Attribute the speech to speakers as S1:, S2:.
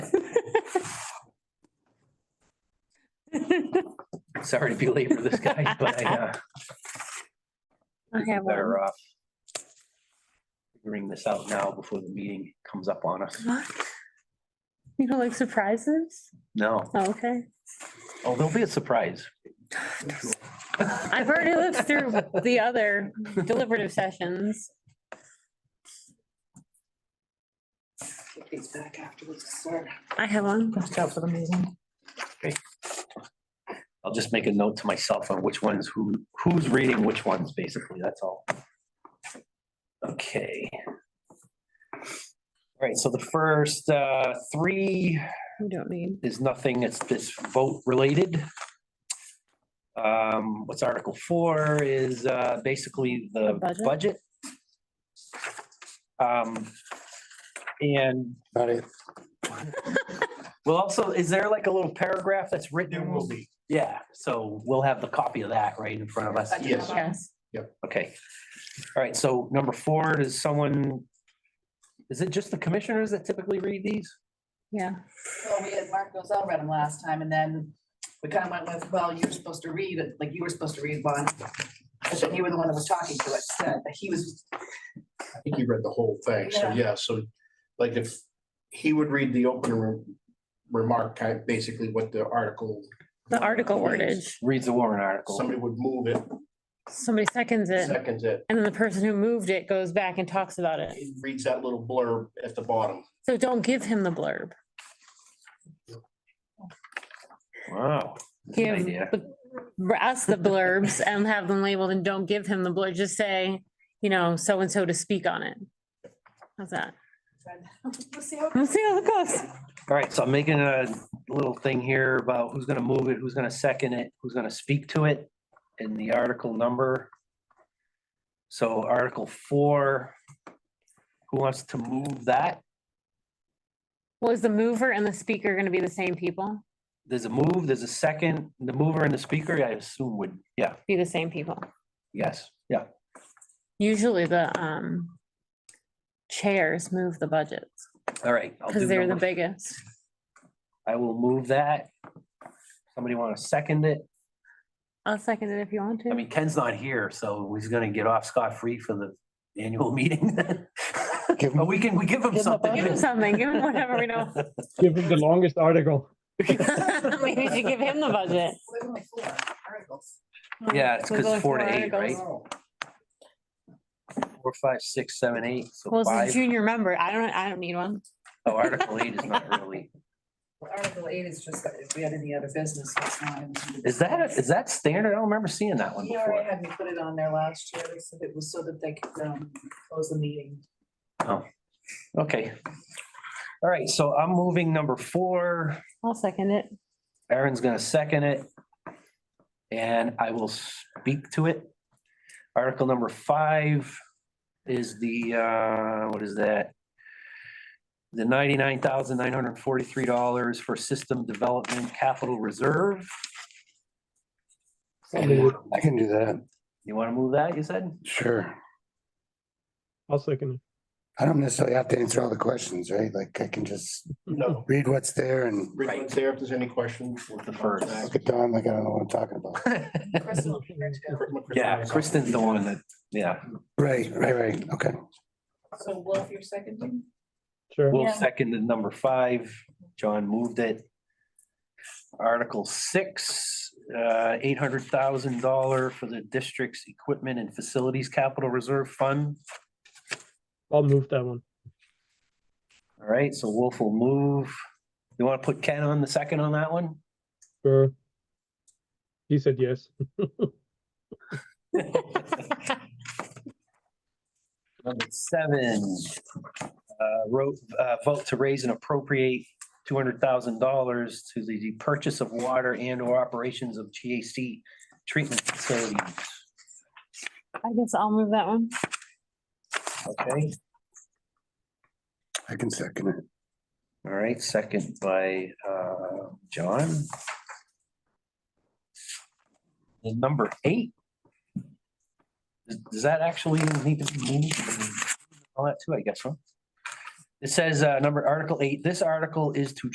S1: Sorry to belabor this guy, but I, uh,
S2: I have one.
S1: better off figuring this out now before the meeting comes up on us.
S2: What? You don't like surprises?
S1: No,
S2: Oh, Okay.
S1: oh, there'll be a surprise.
S2: I've already lived through the other deliberative sessions.
S3: These back afterwards, sir.
S2: I have one.
S3: After the meeting.
S1: I'll just make a note to myself on which ones, who, who's reading which ones, basically, that's all. Okay. All right, so the first uh three
S2: You don't need.
S1: is nothing, it's this vote related. Um, what's Article four is uh basically the
S2: The budget?
S1: budget. Um, and
S4: Not it.
S1: well, also, is there like a little paragraph that's written?
S4: There will be.
S1: Yeah, so we'll have the copy of that right in front of us.
S4: Yes.
S2: Yes.
S1: Okay. All right, so number four, does someone, is it just the commissioners that typically read these?
S2: Yeah.
S3: Well, we had Mark Gosell read them last time and then we kind of went with, well, you were supposed to read it, like you were supposed to read one. But then you were the one that was talking to it, so he was,
S4: I think you read the whole thing, so
S3: Yeah.
S4: yeah, so like if he would read the opening re- remark, kind of basically what the article.
S2: The article
S4: is.
S2: wordage.
S1: Reads the warrant article.
S4: Somebody would move it,
S2: Somebody seconds it.
S4: seconds it,
S2: And then the person who moved it goes back and talks about it.
S4: he reads that little blurb at the bottom.
S2: So don't give him the blurb.
S1: Wow. that's a good
S2: Give
S1: idea.
S2: the- for us the blurbs and have them labeled and don't give him the blurb. Just say, you know, so and so to speak on it. How's that?
S3: let's see how it
S2: We'll see how it goes.
S1: All right, so I'm making a little thing here about who's gonna move it, who's gonna second it, who's gonna speak to it, and the article number. So Article four, who wants to move that?
S2: Was the mover and the speaker going to be the same people?
S1: There's a move, there's a second, the mover and the speaker, I assume would, yeah,
S2: Be the same people.
S1: yes, yeah.
S2: Usually the um chairs move the budgets
S1: All right. I'll do
S2: because they're the
S1: number-
S2: biggest.
S1: I will move that. Somebody want to second it?
S2: I'll second it if you want
S1: I
S2: to.
S1: mean, Ken's not here, so he's gonna get off scot-free for the annual meeting.
S4: Give him-
S1: But we can, we give him
S4: Give him a
S1: something.
S2: Give him something, give him whatever we know.
S5: Give him the longest article.
S2: Maybe we should give him the budget.
S3: was. Only four articles.
S1: Yeah, it's
S2: We'll
S1: because
S2: go
S1: four to
S2: four
S1: eight, right?
S2: articles.
S3: Oh,
S1: Four, five, six, seven, eight, so
S2: Well, it's a
S1: five.
S2: junior member. I don't, I don't need one.
S1: Oh, Article eight is not really,
S3: Article eight is just, that if we had any other business, it's not.
S1: is that, is that standard? I don't remember seeing that one
S3: He already
S1: before.
S3: had me put it on there last year, They said it was so that they could, um, close the meeting.
S1: Okay. All right, so I'm moving number four.
S2: I'll second it.
S1: Aaron's gonna second it. And I will speak to it. Article number five is the, uh, what is that? The ninety-nine thousand nine hundred and forty-three dollars for system development capital reserve.
S4: I can do that,
S1: You wanna move that, you said?
S4: sure.
S5: I'll second
S6: I don't necessarily have to answer all the questions, right? Like I can just
S1: Mm-hmm.
S4: No,
S6: read what's there and
S4: read what's there if there's any questions. we'll
S1: The first.
S6: look at Don like I don't know what I'm talking about.
S3: Chris will be here
S5: it.
S3: too.
S1: Yeah, Kristen's the one that, yeah,
S6: Right, right, right. Okay.
S3: So Wolf, you're seconding?
S5: Sure.
S1: we'll
S2: Yeah.
S1: second the number five. John moved it. Article six, uh, eight hundred thousand dollar for the district's equipment and facilities capital reserve fund.
S5: I'll move that one.
S1: All right, so Wolf will move. You want to put Ken on the second on that one?
S5: Sure. He said yes.
S1: Number seven, uh, wrote, uh, vote to raise and appropriate two hundred thousand dollars to the purchase of water and or operations of GAC treatment facilities.
S2: I guess I'll move that one.
S1: Okay.
S6: I can second it.
S1: All right, second by uh, John. And number eight. Does- Does that actually need to be moved? All that too, I guess, huh? It says, uh, number, Article eight, this article is to